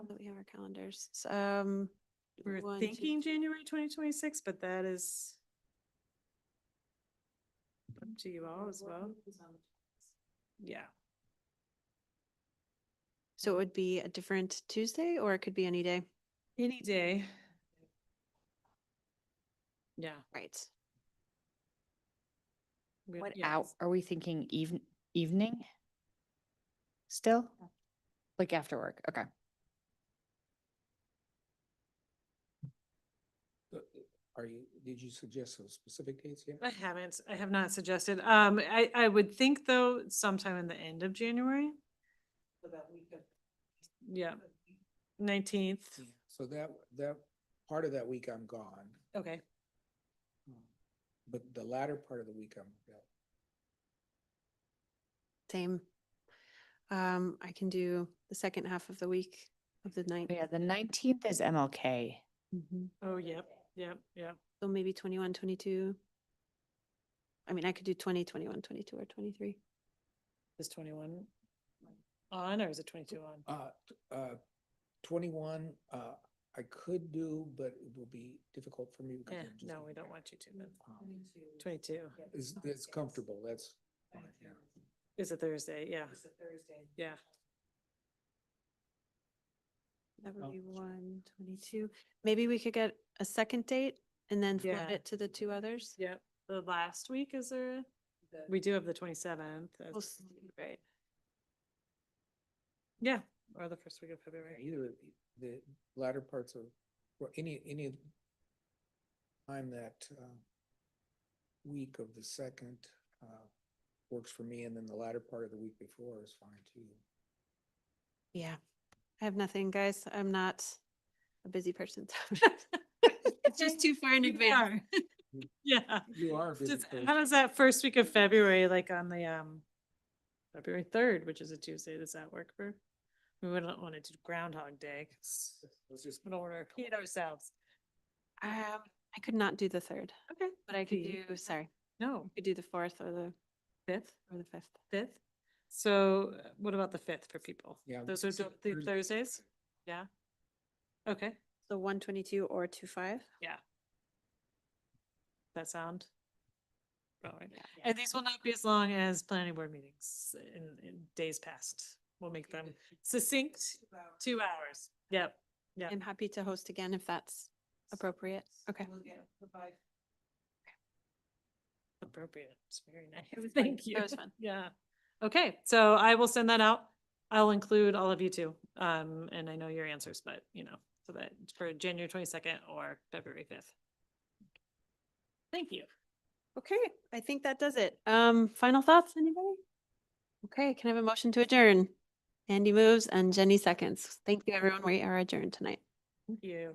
have our calendars. So, Um, We one, were two, thinking January twenty twenty-six, but that is up to you all as well. Yeah, so it would be a different Tuesday or it could be any day. any day. Yeah. Right. we- What yeah, out, are we thinking even, evening? Still? Like after work, okay. Uh, Are you, did you suggest some specific dates yet? I haven't, I have not suggested. Um, I, I would think though sometime in the end of January. Yeah, nineteenth, So that, that, part of that week I'm gone, okay. but the latter part of the week I'm available. Same. Um, I can do the second half of the week of the ninth, Yeah, the nineteenth is MLK. Oh, yep, yep, yep. so maybe 21, 22. I mean, I could do 20, 21, 22 or 23. Is twenty-one on or is it twenty-two on? Uh, t- uh, twenty-one, uh, I could do, but it will be difficult for me. because Eh, I'm just no, gonna we be don't back. want you to, but Um, twenty-two It's, it's comfortable, that's. fine, yeah. is a Thursday, yeah. It's a Thursday. Yeah. That Oh. would be one, 22. Maybe we could get a second date and then Yeah. float it to the two others. Yep, the last week is there, The- we do have the twenty-seventh. We'll s- Right. Yeah, or the first week of Yeah, February. Either the latter parts of, or any, any of time that uh, week of the second uh, works for me, and then the latter part of the week before is fine too. Yeah. I have nothing, guys. I'm not a busy person. so It's just too far in You advance. Yeah, You are. a busy just, person. how does that first week of February, like on the, um, February third, which is a Tuesday, does that work for? We wouldn't want to do Groundhog Day, 'cause Let's just we don't want to repeat ourselves. Um, I could not do the third, Okay. but I could See? do, sorry, I No, could do the fourth or the, fifth, or the fifth. fifth. So uh, what about the fifth for people? Yeah, Those are let's do the the Thursday. Thursdays? Yeah. Okay, So one twenty-two or two five? that sound? All right. Yeah. And these will not be as long as planning board meetings in, in days past. We'll make them succinct, two hours. Yep. Yep. I'm happy to host again if that's appropriate. Okay. We'll get, provide Appropriate. It's very was nice. fun. Thank you. That was fun. Yeah. Okay, so I will send that out. I'll include all of you too. Um, and I know your answers, but you know, so that for January twenty-second or February fifth. Thank you. Okay, I think that does it. Um, final thoughts, anybody? Okay, can I have a motion to adjourn? Andy moves and Jenny seconds. Thank you, everyone. We are adjourned tonight. Thank you.